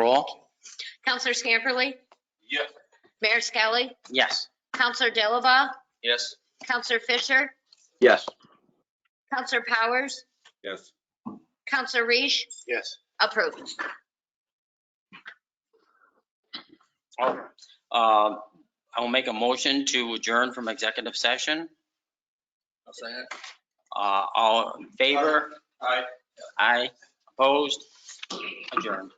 roll. Counselor Scamperly, Yes. Mayor Skelly, Yes. Counselor Dilaba, Yes. Counselor Fisher, Yes. Counselor Powers, Yes. Counselor Reish, Yes. approved. All right. Uh, I will make a motion to adjourn from executive session. I'll say it. Uh, All in favor? Aye. Aye. Opposed? Adjourned.